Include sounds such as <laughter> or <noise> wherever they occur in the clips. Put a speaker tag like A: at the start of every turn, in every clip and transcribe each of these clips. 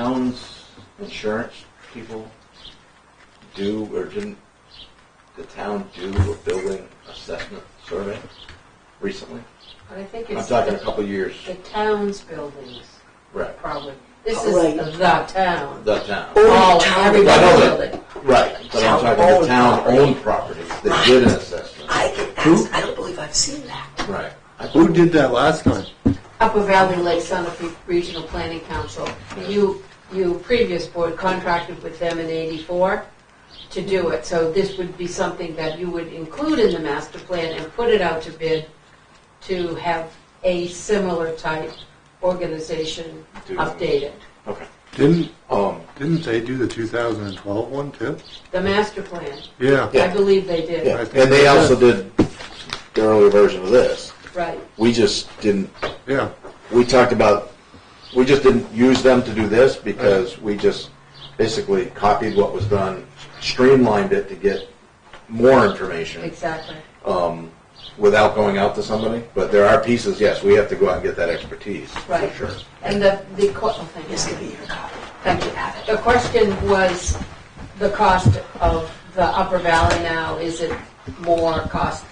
A: towns, insurance people do or didn't the town do a building assessment survey recently?
B: But I think
A: I'm
B: it's
A: talking a
B: the
A: couple years,
B: the town's buildings,
A: right,
B: probably. This
C: Right.
B: is the town.
A: the town.
B: All,
C: town.
B: everybody's
A: I know that.
B: building.
A: Right, but I'm talking the town-owned properties that did an assessment.
C: I can, that's, I don't believe I've seen that.
A: Right. I
D: Who did that last time?
B: Upper Valley Lake Sanofi Regional Planning Council, you, you previous board contracted with them in eighty-four to do it, so this would be something that you would include in the master plan and put it out to bid to have a similar type organization
A: Do it.
B: update it.
A: Okay.
D: Didn't
A: Um,
D: didn't they do the 2012 one too?
B: The master plan,
D: Yeah.
B: I believe they
A: yeah,
B: did,
A: and they also did the earlier version of this.
B: right.
A: We just didn't
D: Yeah.
A: we talked about, we just didn't use them to do this because we just basically copied what was done, streamlined it to get more information
B: Exactly.
A: without going out to somebody. But there are pieces, yes, we have to go out and get that expertise, for
B: Right.
A: sure.
B: And the, the, co- oh, thank you.
C: This could be your copy.
B: Thank you. The question was the cost of the Upper Valley now. Is it more cost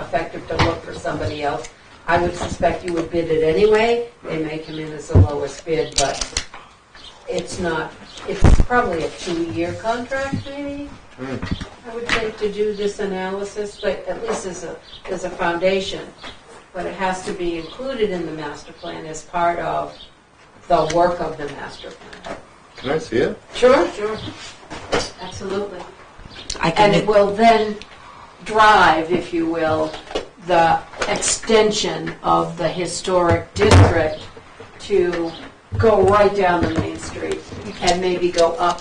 B: effective to look for somebody else? I would suspect you would bid it anyway. They may come in as the lowest bid, but it's not, it's probably a two-year contract maybe? I would think to do this analysis, but at least as a, as a foundation. But it has to be included in the master plan as part of the work of the master plan.
D: Can I see it?
B: Sure, sure. Absolutely.
C: I can,
B: And it will then drive, if you will, the extension of the historic district to go right down the Main Street and maybe go up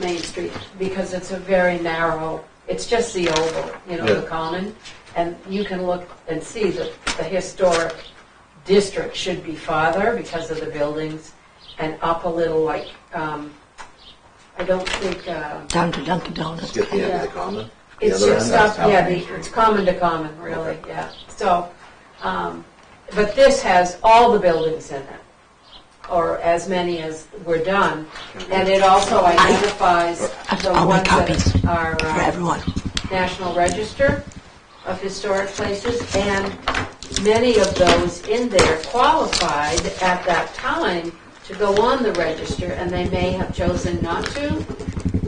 B: Main Street because it's a very narrow, it's just the oval, you know, the
A: Yeah.
B: common. And you can look and see that the historic district should be farther because of the buildings and up a little like, um, I don't think, um,
C: down to Dunkin' Donuts.
A: Get the end of the common. the
B: it's
A: other
B: just
A: end,
B: up,
A: that's
B: yeah,
A: South Main
B: the-
A: Street.
B: it's common to common, really, yeah. So, um, but this has all the buildings in it, or as many as were done. And it also identifies the
C: I'll make
B: ones that
C: copies
B: are
C: For
B: uh,
C: everyone.
B: National Register of Historic Places, and many of those in there qualified at that time to go on the register, and they may have chosen not to.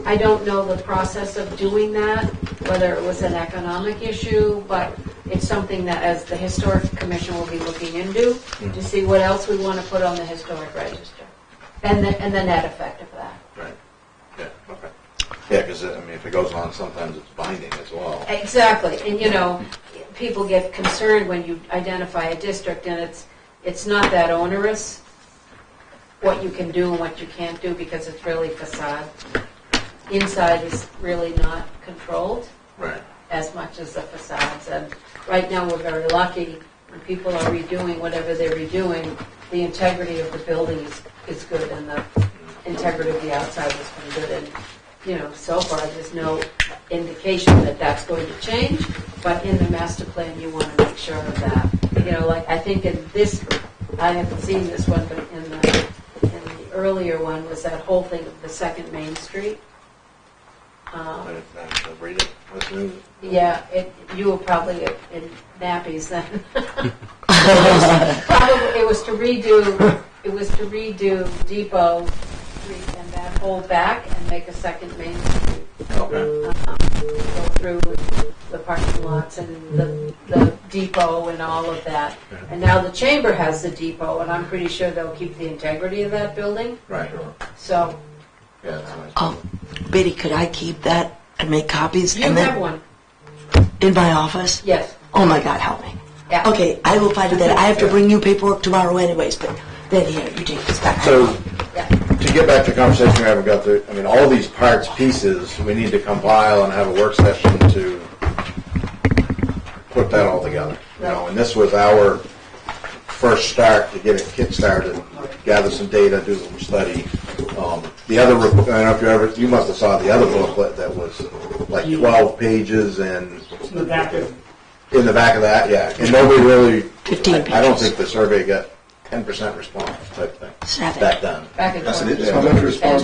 B: I don't know the process of doing that, whether it was an economic issue, but it's something that, as the Historic Commission will be looking into, to see what else we want to put on the historic register, and the, and the net effect of that.
A: Right, yeah, okay. Yeah, because, I mean, if it goes on, sometimes it's binding as well.
B: Exactly, and you know, people get concerned when you identify a district, and it's, it's not that onerous, what you can do and what you can't do, because it's really facade. Inside is really not controlled
A: Right,
B: as much as the facades, and right now, we're very lucky, when people are redoing whatever they're redoing, the integrity of the building is, is good, and the integrity of the outside has been good, and, you know, so far, there's no indication that that's going to change, but in the master plan, you want to make sure of that. You know, like, I think in this, I haven't seen this one, but in the, in the earlier one, was that whole thing of the second Main Street. Um,
A: I didn't- I didn't read it, listen to it.
B: yeah, it, you were probably in nappies then. <laughs> Probably, it was to redo, it was to redo Depot Street and that whole back and make a second main street,
A: Okay,
B: go through the parking lots and the, the depot and all of that. And now the chamber has the depot, and I'm pretty sure they'll keep the integrity of that building,
A: right,
B: so
A: yeah, that's nice.
C: Oh, Biddy, could I keep that and make copies?
B: you
C: and
B: have
C: then
B: one,
C: In my office?
B: yes,
C: Oh my God, help me.
B: yeah.
C: Okay, I will find it then. I have to bring you paperwork tomorrow anyways, but then here, you take this back.
A: So,
B: Yeah.
A: to get back to the conversation we haven't got through, I mean, all these parts, pieces, we need to compile and have a work session to put that all together. You know, and this was our first start to get it kick-started, gather some data, do some study. Um, The other, rep- I don't know if you ever, you must have saw the other booklet that was like twelve pages and
E: It's in the back of
A: in the back of that, yeah. And nobody really,
C: Fifteen
A: I don't
C: pages.
A: think the survey got
C: ten percent response type thing.
F: Seven.
C: Back then.
G: Back in
A: That's it.
C: Yeah.
A: How much response